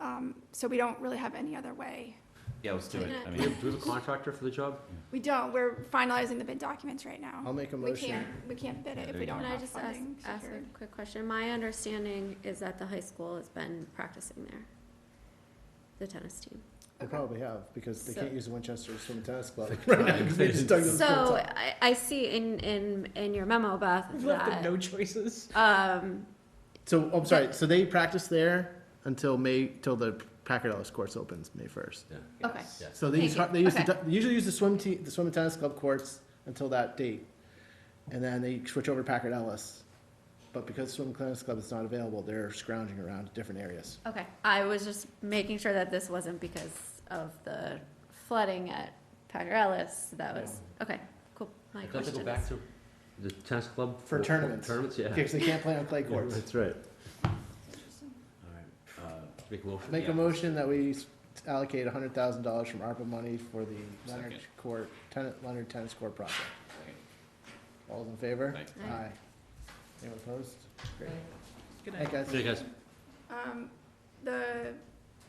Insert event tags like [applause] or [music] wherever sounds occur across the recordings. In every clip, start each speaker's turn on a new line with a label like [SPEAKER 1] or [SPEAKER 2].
[SPEAKER 1] Um, So we don't really have any other way.
[SPEAKER 2] Yeah, let's do it. I
[SPEAKER 3] Do we
[SPEAKER 2] mean,
[SPEAKER 3] have do we have a contractor for the job?
[SPEAKER 1] We don't, we're finalizing the bid documents right now.
[SPEAKER 4] I'll make a
[SPEAKER 1] We
[SPEAKER 4] motion.
[SPEAKER 1] can't, we can't bid it if
[SPEAKER 2] There
[SPEAKER 1] we
[SPEAKER 2] you go.
[SPEAKER 1] don't
[SPEAKER 3] Can I
[SPEAKER 1] have
[SPEAKER 3] just ask,
[SPEAKER 1] funding
[SPEAKER 3] ask
[SPEAKER 1] secured.
[SPEAKER 3] a quick question? My understanding is that the high school has been practicing there, the tennis team.
[SPEAKER 4] They probably have, because they
[SPEAKER 3] So-
[SPEAKER 4] can't use the Winchester Swim Tennis [laughs] Club. They just dug them
[SPEAKER 3] So
[SPEAKER 4] up.
[SPEAKER 3] I, I see in, in, in your memo, Beth,
[SPEAKER 5] Left them
[SPEAKER 3] that,
[SPEAKER 5] no choices.
[SPEAKER 3] um,
[SPEAKER 4] So, I'm sorry, so they practice there until May, till the Packard Ellis courts opens, May first.
[SPEAKER 3] okay.
[SPEAKER 2] yeah.
[SPEAKER 4] So they use,
[SPEAKER 3] Thank you.
[SPEAKER 4] they use, the
[SPEAKER 3] Okay.
[SPEAKER 4] du- they usually use the swim team, the swim and tennis club courts until that date. And then they switch over to Packard Ellis. But because swim and tennis club is not available, they're scrounging around different areas.
[SPEAKER 3] Okay, I was just making sure that this wasn't because of the flooding at Packer Ellis, that was, okay, cool. My
[SPEAKER 6] Don't they
[SPEAKER 3] question
[SPEAKER 6] go
[SPEAKER 3] is,
[SPEAKER 6] back to the tennis club?
[SPEAKER 4] For tournaments.
[SPEAKER 6] Tournaments, yeah.
[SPEAKER 4] Because they can't play on clay courts.
[SPEAKER 6] That's right. All right, uh, make a motion.
[SPEAKER 4] Make a
[SPEAKER 6] Yeah.
[SPEAKER 4] motion that we s- allocate hundred thousand dollars from ARPA money for the Leonard
[SPEAKER 2] Second.
[SPEAKER 4] Court, tenant, Leonard Tennis Court project. All in favor?
[SPEAKER 2] Thank
[SPEAKER 3] Aye.
[SPEAKER 4] Aye. Anyone opposed? Great.
[SPEAKER 5] Good
[SPEAKER 4] Hey,
[SPEAKER 5] night.
[SPEAKER 4] guys.
[SPEAKER 6] See you guys.
[SPEAKER 1] Um, The,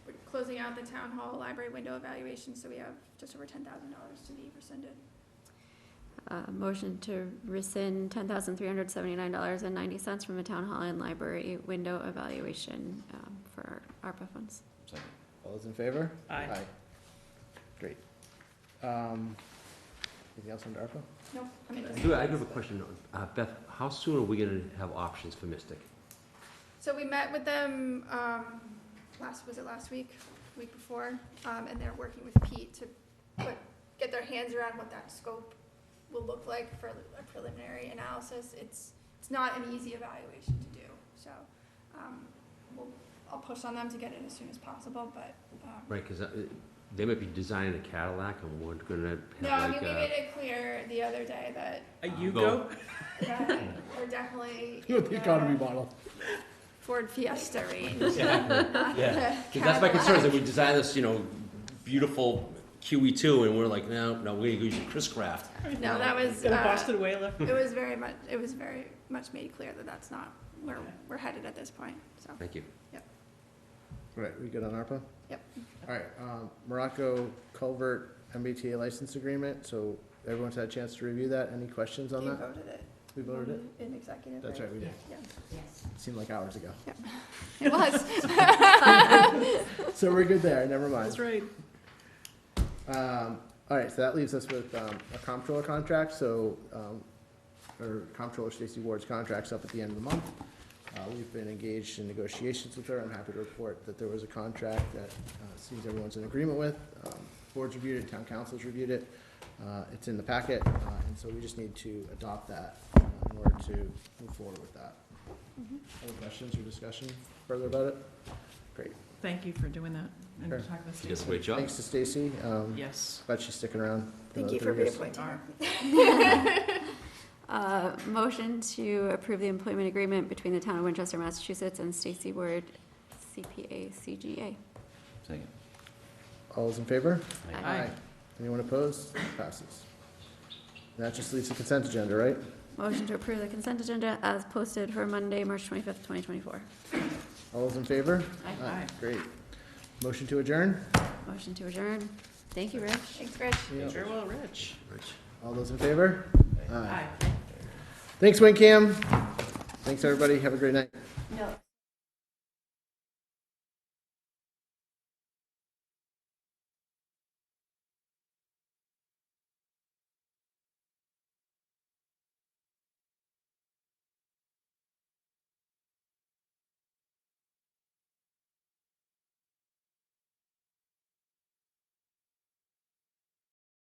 [SPEAKER 1] we're closing out the town hall library window evaluation, so we have just over ten thousand dollars to be rescinded.
[SPEAKER 3] uh, motion to rescind ten thousand three hundred seventy-nine dollars and ninety cents from the town hall and library window evaluation, um, for ARPA funds.
[SPEAKER 2] Second.
[SPEAKER 4] All those in favor?
[SPEAKER 5] Aye.
[SPEAKER 4] Great. Um, anything else under ARPA?
[SPEAKER 1] No, I mean.
[SPEAKER 6] Do I I do have a question, uh, Beth, how soon are we gonna have options for Mystic?
[SPEAKER 1] So we met with them, um, last, was it last week, week before? Um, and they're working with Pete to put, get their hands around what that scope will look like for a preliminary analysis. It's, it's not an easy evaluation to do, so, um, we'll, I'll push on them to get it as soon as possible, but, um.
[SPEAKER 6] Right, cause uh, they might be designing a Cadillac and we're gonna
[SPEAKER 1] No, I
[SPEAKER 6] have
[SPEAKER 1] mean,
[SPEAKER 6] like,
[SPEAKER 1] we
[SPEAKER 6] uh,
[SPEAKER 1] made it clear the other day that,
[SPEAKER 5] A Yugo?
[SPEAKER 6] Go. [laughs]
[SPEAKER 1] that we're
[SPEAKER 4] [laughs]
[SPEAKER 1] definitely
[SPEAKER 4] The
[SPEAKER 1] in
[SPEAKER 4] economy
[SPEAKER 1] the
[SPEAKER 4] model.
[SPEAKER 1] Ford Fiesta range. [laughs] not
[SPEAKER 2] Yeah,
[SPEAKER 1] the
[SPEAKER 6] 'cause that's my concern, is
[SPEAKER 1] Cadillac.
[SPEAKER 6] that we design this, you know, beautiful QE two and we're like, no, no, we're gonna use a Chris Craft.
[SPEAKER 1] No, that was,
[SPEAKER 5] Gonna
[SPEAKER 1] uh,
[SPEAKER 5] bust it away left.
[SPEAKER 1] it was very much, it was very much made clear that that's not where
[SPEAKER 5] Okay.
[SPEAKER 1] we're headed at this point, so.
[SPEAKER 6] Thank you.
[SPEAKER 4] Right, we good on ARPA?
[SPEAKER 1] Yep.
[SPEAKER 4] All right, um, Morocco Culvert MBTA license agreement, so everyone's had a chance to review that. Any questions on
[SPEAKER 1] You
[SPEAKER 4] that?
[SPEAKER 1] voted it
[SPEAKER 4] We voted it?
[SPEAKER 1] in executive,
[SPEAKER 4] That's right, we did.
[SPEAKER 1] Mm-hmm. Yeah.
[SPEAKER 4] Seemed like hours ago.
[SPEAKER 1] It
[SPEAKER 4] [laughs]
[SPEAKER 1] was.
[SPEAKER 4] So we're good there, never mind.
[SPEAKER 5] That's right.
[SPEAKER 4] Um, all right, so that leaves us with, um, a comptroller contract, so, um, or comptroller Stacy Ward's contract's up at the end of the month. Uh, we've been engaged in negotiations with her. I'm happy to report that there was a contract that, uh, seems everyone's in agreement with. Um, Board's reviewed it, town council's reviewed it. Uh, it's in the packet, uh, and so we just need to adopt that uh, in order to move forward with that.
[SPEAKER 5] Mm-hmm.
[SPEAKER 4] Any questions or discussion further about it? Great.
[SPEAKER 5] Thank you for doing that and
[SPEAKER 4] Sure.
[SPEAKER 5] talking with
[SPEAKER 6] You guys,
[SPEAKER 5] Stacy.
[SPEAKER 6] great job.
[SPEAKER 4] Thanks to Stacy. Um,
[SPEAKER 5] Yes.
[SPEAKER 4] Glad she's sticking around.
[SPEAKER 1] Thank
[SPEAKER 4] another
[SPEAKER 1] you for
[SPEAKER 4] three years.
[SPEAKER 1] reappointing her.
[SPEAKER 3] Uh, motion to approve the employment agreement between the town of Winchester, Massachusetts and Stacy Ward, CPA CGA.
[SPEAKER 2] Second.
[SPEAKER 4] All those in favor?
[SPEAKER 2] Aye.
[SPEAKER 5] Aye.
[SPEAKER 4] Anyone opposed? Passes. And That just leaves the consent agenda, right?
[SPEAKER 3] Motion to approve the consent agenda as posted for Monday, March twenty-fifth, twenty twenty-four.
[SPEAKER 4] All those in favor?
[SPEAKER 3] Aye.
[SPEAKER 5] Aye.
[SPEAKER 4] Great. Motion to adjourn?
[SPEAKER 3] Motion to adjourn. Thank you, Rich.
[SPEAKER 1] Thanks, Rich.
[SPEAKER 5] Very well, Rich.
[SPEAKER 6] Rich.
[SPEAKER 4] All those in favor?
[SPEAKER 5] Aye.
[SPEAKER 4] Thanks, WinCam. Thanks, everybody. Have a great night.